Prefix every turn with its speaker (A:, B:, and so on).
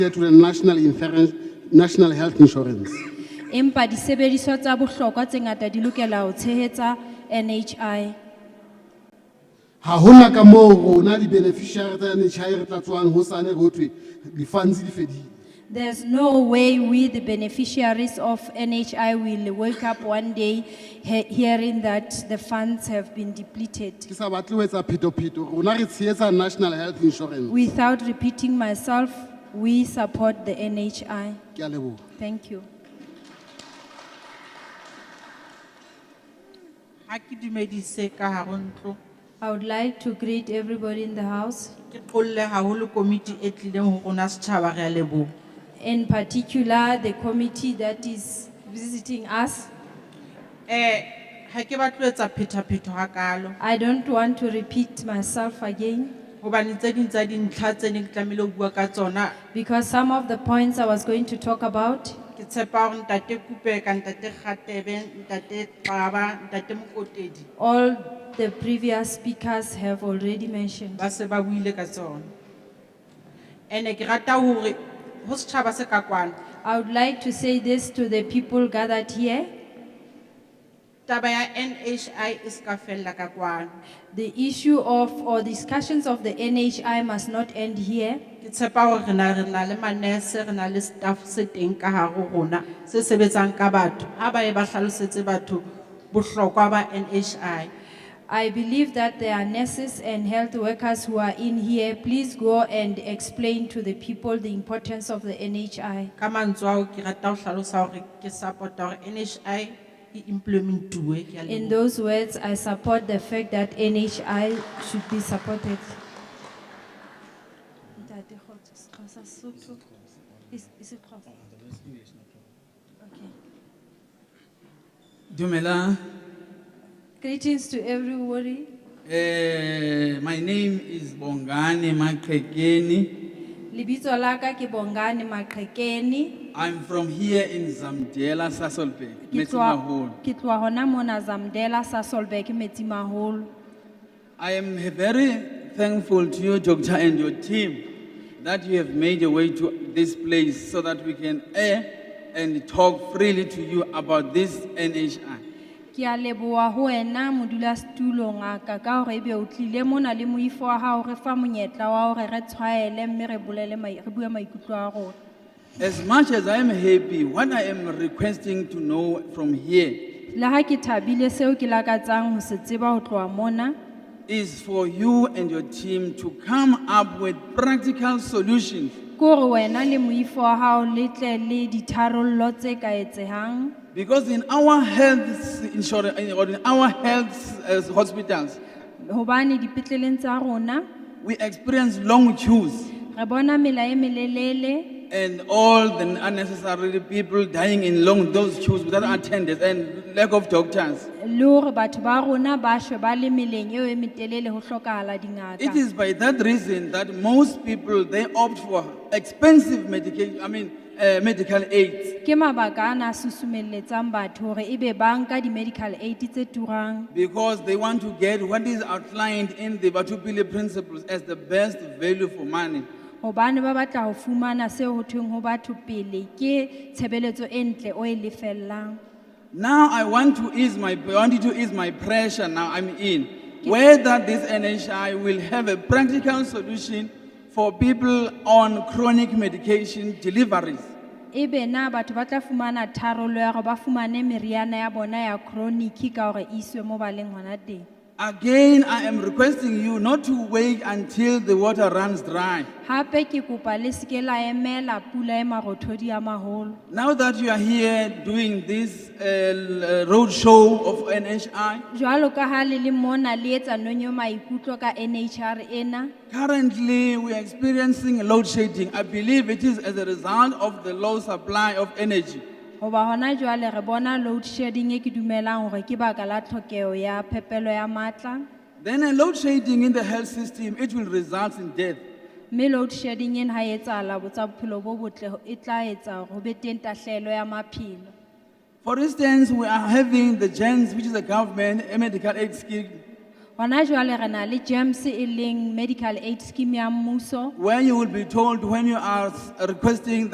A: to the national insurance, national health insurance.
B: Empa disebediswa tsa bohlokwa tse ngata di lokela ho tshehetsa NHI.
A: Ha hona ka moo rona di-beneficiary tsa NHI re tla tswang hosane ho thwe di-funds di fedile.
B: There's no way we, the beneficiaries of NHI, will wake up one day he- hearing that the funds have been depleted.
A: Ke sa batle ho etsa phetopheto, rona re tshehetsa national health insurance.
B: Without repeating myself, we support the NHI.
A: Ke a leboha.
B: Thank you.
C: Ha ke dumedise ka hare ho ntlo.
B: I would like to greet everybody in the house,
C: Ke qolle haholo komiti e tlileng ho rona setjhaba re a leboha.
B: in particular the committee that is visiting us.
C: Eh, ha ke batlo etsa phetapheto hakalo.
B: I don't want to repeat myself again
C: Hobane tse ding tsa dintlha tse neng ke tlamehile ho bua ka tsona.
B: because some of the points I was going to talk about,
C: Ke tshepa hore ntate Kupe ka ntate Kgatebe, ntate Qaba, ntate Mokotedi
B: all the previous speakers have already mentioned.
C: ba se ba buile ka tsona. Ene ke rata hore ho setjhaba se ka kwana.
B: I would like to say this to the people gathered here.
C: Taba ya NHI e ska fella ka kwana.
B: The issue of or discussions of the NHI must not end here.
C: Ke tshepa hore re na re na le manese, re na le staff se teng ka hare ho rona, se sebetsang ka batho, ha ba e ba hlalosetse batho bohlokwa ba NHI.
B: I believe that there are nurses and health workers who are in here. Please go and explain to the people the importance of the NHI.
C: Ka mantswe ao ke rata ho hlalosa hore ke support-a hore NHI e implement-uwe, ke a
B: In
C: leboha.
B: those words, I support the fact that NHI should be supported. Ntate Kgotso, Xhosa, Sotho. Is- is it Xhosa? Okay.
D: Dumela,
B: Greetings to everybody.
D: eh, my name is Bongani Makrekeni.
B: Libito laka ke Bongani Makrekeni.
D: I'm from here in Zamdela, Sasolburg, Metsimaholo.
B: Ke tloha hona mona Zamdela Sasolburg Metsimaholo.
D: I am very thankful to you, Doctor, and your team that you have made a way to this place so that we can air and talk freely to you about this NHI.
B: Ke a leboha ho wena modulasetulo ngaka ka hore ebe o tlile mona le moifo wa hao re fa monyetla wa hore re tshwaele mme re bolele mai- re bue maikutlo a rona.
D: As much as I am happy, what I am requesting to know from here
B: Le ha ke thabile seo ke lakatsang ho se tseba ho tloha mona
D: is for you and your team to come up with practical solutions
B: ke hore wena le moifo wa hao le tle le ditharollo tse ka etsehang.
D: Because in our health insurance, or in our health uh, hospitals,
B: Hobane dipetleleng tsa rona
D: we experience long queues
B: re bona mela e melelele
D: and all the unnecessary people dying in long those queues without attendance and lack of doctors.
B: le hore batho ba rona ba shwe ba le meleng eo e metelele ho hlokahala
D: It
B: dingaka.
D: is by that reason that most people they opt for expensive medication. I mean uh, medical aids
B: Ke mabaka ana a susumelletsang batho hore ebe ba nka di-medical aid tse turang
D: because they want to get what is outlined in the Batupile principles as the best value for money.
B: hobane ba batla ho fumana seo ho thweng ho batho pele ke tshebeletso e ntle o e lefellang.
D: Now I want to ease my, I wanted to ease my pressure now I'm in. Whether this NHI will have a practical solution for people on chronic medication deliveries.
B: Ebe E na batho ba tla fumana tharollo ya hore ba fumane meriana ya bona ya chronic ka hore e iswe mo ba leng hona teng.
D: Again, I am requesting you not to wait until the water runs dry.
B: Hape ke kopa le seke la emela pula e marothodi a maholo.
D: Now that you are here doing this uh, roadshow of NHI,
B: Jwalo ka ha le le mona le etsa nonyo maikutlo ka NHR ena,
D: currently we are experiencing load shedding. I believe it is as a result of the low supply of energy.
B: hoba hona jwale re bona load shedding e ke dumelang hore ke baka la tlhokeo ya phepelo ya matla.
D: Then a load shedding in the health system, it will result in death.
B: Mme load shedding ena ha e etsahala bo tsa bophelo bo botle e tla etsa hore ho be teng tahlehelo ya maphelo.
D: For instance, we are having the GENS, which is a government a medical aid scheme,
B: gona jwale re na le gems e leng medical aid scheme ya mmuso
D: where you will be told when you are s- requesting